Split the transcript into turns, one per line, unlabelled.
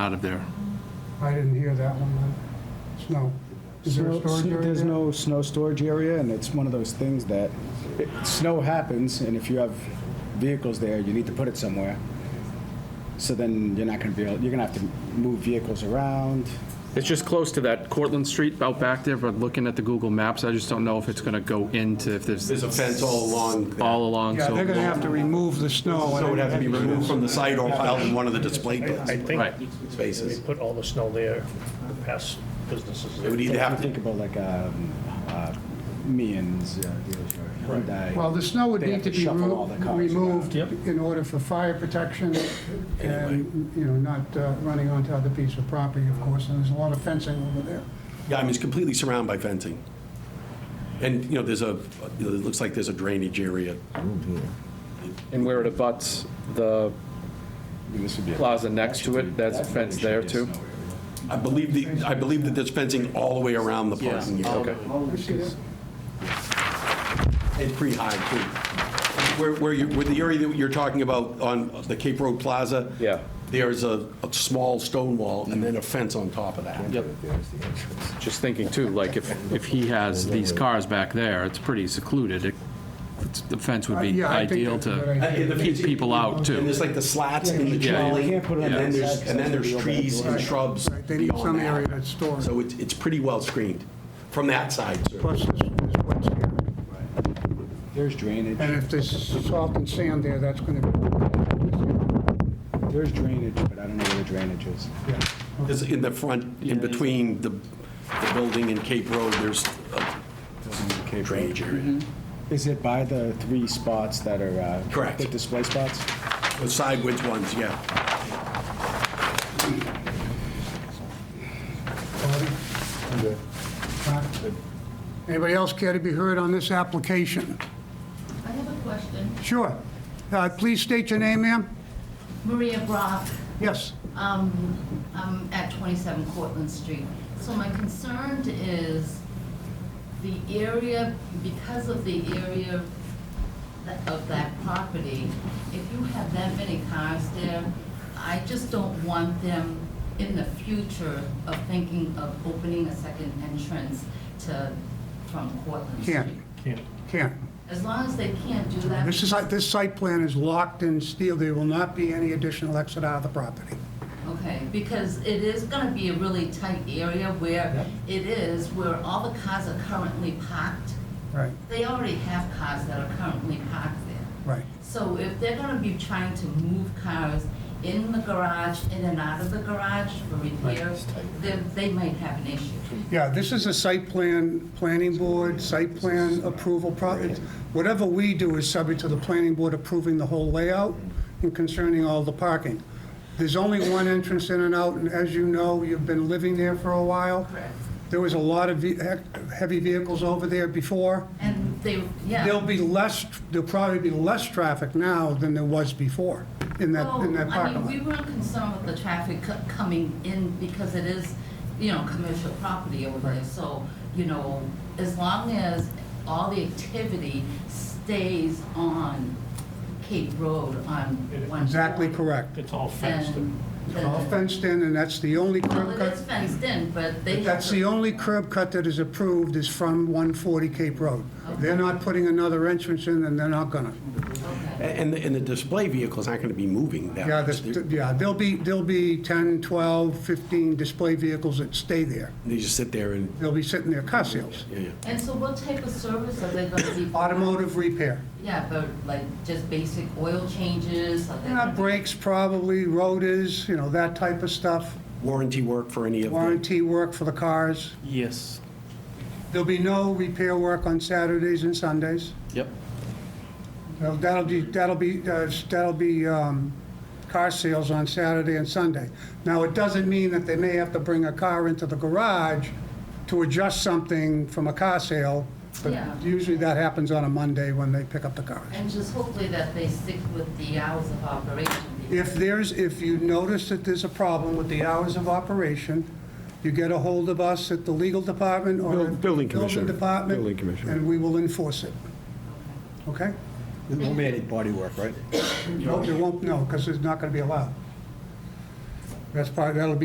out of there.
I didn't hear that one, uh, snow. Is there a
Snow-
storage
sn-
area
There's
there?
no snow storage area, and it's one of those things that, it- snow happens, and if you have vehicles there, you need to put it somewhere. So then you're not gonna be able, you're gonna have to move vehicles around.
It's just close to that Cortlandt Street out back there, but looking at the Google Maps, I just don't know if it's going to go into, if there's
There's a fence all along. there.
all along,
Yeah,
so.
they're gonna have to remove the snow.
So it
and
would have to be removed from the site or out in one of the display
I
Right.
think they
spaces.
put all the snow there, the past businesses.
It would either
If you
have to,
think about like, um, uh, Meehan's, uh, dealership, Hyundai.
Well, the snow would
They
need
have
to
to
be
shuffle all
remo-
the cars around.
removed
Yep.
in order for fire protection and, you know, not uh, running onto other pieces of property, of course, and there's a lot of fencing over there.
yeah, I mean, it's completely surrounded by fencing. And, you know, there's a, it looks like there's a drainage area.
And where it abuts the
This would be a-
plaza next to it, that's a
Actually,
fence there
should be
too?
a snow area.
I believe the, I believe that there's fencing all the way around the parking area.
Okay.
You see that?
It's pretty high, too. Where, where you, with the area that you're talking about on the Cape Road Plaza.
Yeah.
There's a, a small stone wall and then a fence on top of that.
Yep. Just thinking too, like if, if he has these cars back there, it's pretty secluded. It- it's- The fence would
Uh,
be
yeah, I think
ideal
that's a good
to
idea.
And Uh, the
keep
fence-
people out
And
too.
there's like the slats in the
Yeah.
trolley,
You
and
can't put it on
then
the
there's,
outside,
and then
it's
there's
gonna be over
trees
that
and
door.
shrubs
Right, They need
beyond
some
that.
area that's stored,
So it's, it's pretty well screened from that side, sir.
plus this this wet here.
There's drainage.
And if there's salt and sand there, that's gonna be,
There's drainage, but I don't know where the drainage is.
yeah.
There's in the front, in between the, the building and Cape Road, there's a drainage area.
Mm-hmm.
Is it by the three spots that are? uh,
Correct.
The display spots?
The sideways ones, yeah.
Huh? Anybody else care to be heard on this application?
I have a question.
Sure. Uh, Please state your name, ma'am.
Maria Brock,
Yes.
um, I'm at 27 Cortlandt Street. So my concern is the area, because of the area tha- of that property, if you have that many cars there, I just don't want them in the future of thinking of opening a second entrance to, from Cortlandt
Can't,
Street.
can't.
As long as they can't do that.
This is, this site plan is locked in steel. There will not be any additional exit out of the property.
Okay, because it is gonna be a really tight area where it is, where all the cars are currently parked.
Right,
They already have cars that are currently parked there.
right.
So if they're gonna be trying to move cars in the garage, in and out of the garage for repairs, then they might have an issue.
Yeah, this is a site plan, planning board, site plan approval process. Whatever we do is subject to the planning board approving the whole layout and concerning all the parking. There's only one entrance in and out, and as you know, you've been living there for a while.
Correct.
There was a lot of ve- heavy vehicles over there before.
And they, yeah.
There'll be less, there'll probably be less traffic now than there was before in that, in that
Well,
parking
Oh, I mean,
lot.
we weren't concerned with the traffic co- coming in because it is, you know, commercial property over there. So, you know, as long as all the activity stays on Cape Road on one.
Exactly
side,
correct.
It's all fenced.
And then-
All fenced in, and that's the only
Well,
curb
it
cut.
is fenced in, but they.
But that's
have to-
the only curb cut that is approved is from 140 Cape Road. They're not putting another entrance in, and they're not gonna.
Okay.
And, and the display vehicles aren't going to be moving that
Yeah,
much.
this, yeah, there'll be, there'll be 10, 12, 15 display vehicles that stay there.
They just sit there and,
They'll be sitting there, car sales,
yeah, yeah.
And so what type of service are they gonna be?
automotive repair.
Yeah, but like just basic oil changes, are they?
Yeah,
gonna be-
brakes probably, rotors, you know, that type of stuff,
warranty work for any of them.
warranty work for the cars.
Yes.
There'll be no repair work on Saturdays and Sundays.
Yep.
Well, That'll be, that'll be, uh, that'll be um, car sales on Saturday and Sunday. Now, it doesn't mean that they may have to bring a car into the garage to adjust something from a car sale, but
Yeah.
usually that happens on a Monday when they pick up the cars.
And just hopefully that they stick with the hours of operation.
If there's, if you notice that there's a problem with the hours of operation, you get a hold of us at the legal department or.
Buil- building commissioner.
Building department.
Building commissioner.
And we will enforce it. Okay?
There won't be any body work, right?
No, there won't, no, because it's not going to be allowed. That's part, that'll be